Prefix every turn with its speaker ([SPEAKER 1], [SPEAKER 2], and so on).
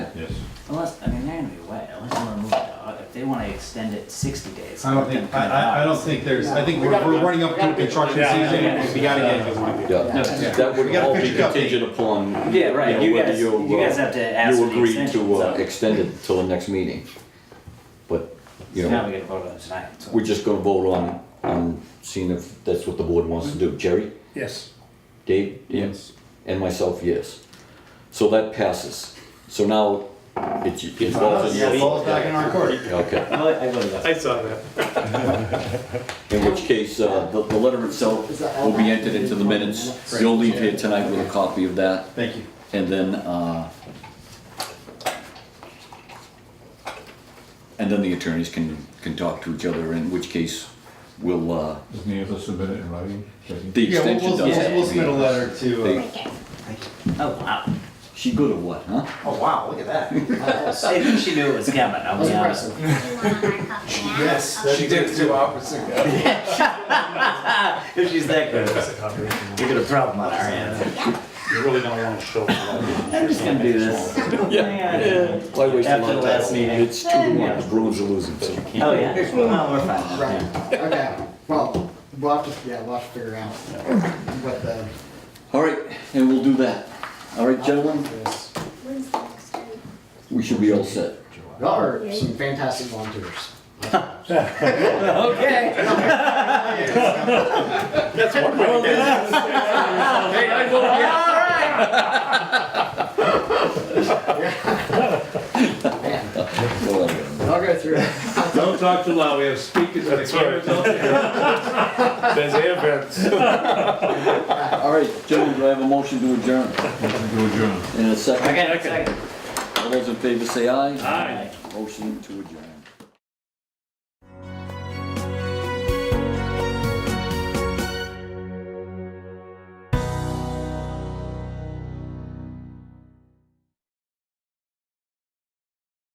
[SPEAKER 1] want to extend it 60 days.
[SPEAKER 2] I don't think, I, I, I don't think there's, I think
[SPEAKER 3] We
[SPEAKER 2] we're,
[SPEAKER 3] gotta
[SPEAKER 2] we're
[SPEAKER 3] be-
[SPEAKER 2] running up
[SPEAKER 3] we gotta
[SPEAKER 2] to
[SPEAKER 3] be-
[SPEAKER 2] construction
[SPEAKER 4] Yeah, yeah,
[SPEAKER 2] season,
[SPEAKER 4] yeah.
[SPEAKER 2] we gotta get this one.
[SPEAKER 5] Yeah,
[SPEAKER 1] No.
[SPEAKER 5] that
[SPEAKER 2] We
[SPEAKER 5] would
[SPEAKER 2] gotta
[SPEAKER 5] all be
[SPEAKER 2] fix it up.
[SPEAKER 5] contingent upon, you
[SPEAKER 1] Yeah,
[SPEAKER 5] know,
[SPEAKER 1] right, you
[SPEAKER 5] whether
[SPEAKER 1] guys,
[SPEAKER 5] you,
[SPEAKER 1] you guys
[SPEAKER 5] uh,
[SPEAKER 1] have to ask for
[SPEAKER 5] you
[SPEAKER 1] the
[SPEAKER 5] agree
[SPEAKER 1] extension,
[SPEAKER 5] to uh,
[SPEAKER 1] so.
[SPEAKER 5] extend it till the next meeting. But, you
[SPEAKER 1] So
[SPEAKER 5] know,
[SPEAKER 1] now we gotta vote on it tonight, so.
[SPEAKER 5] we're just gonna vote on, on seeing if that's what the board wants to do. Jerry,
[SPEAKER 4] Yes.
[SPEAKER 5] Dave? Yes. And myself, yes. So that passes. So now, it's, it's all in
[SPEAKER 2] It
[SPEAKER 5] your-
[SPEAKER 2] falls back in our court.
[SPEAKER 5] Okay.
[SPEAKER 1] No, I I voted yes.
[SPEAKER 6] I saw that.
[SPEAKER 5] In which case, uh, the, the letter itself will be entered into the minutes. You'll leave here tonight with a copy of that,
[SPEAKER 2] Thank you.
[SPEAKER 5] and then, uh, and then the attorneys can, can talk to each other, in which case we'll, uh,
[SPEAKER 7] Does Neil submit it in writing? Does he?
[SPEAKER 5] the
[SPEAKER 2] Yeah, we'll,
[SPEAKER 5] extension
[SPEAKER 2] we'll,
[SPEAKER 5] does have
[SPEAKER 2] we'll-
[SPEAKER 5] to
[SPEAKER 2] we'll
[SPEAKER 5] be-
[SPEAKER 2] submit a letter to, uh,
[SPEAKER 1] Oh, wow.
[SPEAKER 5] She good or what, huh?
[SPEAKER 2] oh wow, look at that.
[SPEAKER 1] I think she knew it was coming, I'll be honest.
[SPEAKER 3] You want our copy now?
[SPEAKER 8] Uh,
[SPEAKER 2] Yes, that'd be good too.
[SPEAKER 1] If she's that good, we got a problem on our hands.
[SPEAKER 6] You really don't want to show.
[SPEAKER 1] I'm just gonna do this. Yeah.
[SPEAKER 5] Why waste a
[SPEAKER 1] After
[SPEAKER 5] lot of
[SPEAKER 1] the last
[SPEAKER 5] time?
[SPEAKER 1] meeting.
[SPEAKER 5] It's two to one, the Bruins are losing, so you can't.
[SPEAKER 1] Oh, yeah, well, we're fine. now,
[SPEAKER 3] Right,
[SPEAKER 1] yeah.
[SPEAKER 3] okay, well, we'll have to, yeah, we'll have to figure out what the.
[SPEAKER 5] All right, and we'll do that. All right, gentlemen,
[SPEAKER 3] is.
[SPEAKER 8] When's the next study?
[SPEAKER 5] we should be all set.
[SPEAKER 3] Y'all are some fantastic volunteers.
[SPEAKER 1] Okay.
[SPEAKER 6] That's one way to get it.
[SPEAKER 3] Man,
[SPEAKER 5] Well, anyway.
[SPEAKER 3] I'll go through it.
[SPEAKER 7] Don't talk too loud, we have speakers and cameras out there.
[SPEAKER 6] There's air vents.
[SPEAKER 5] All right, gentlemen, do I have a motion to adjourn
[SPEAKER 7] Do a journal.
[SPEAKER 5] in a second?
[SPEAKER 1] Okay, second.
[SPEAKER 5] All those in favor say aye.
[SPEAKER 1] Aye.
[SPEAKER 5] Motion to adjourn.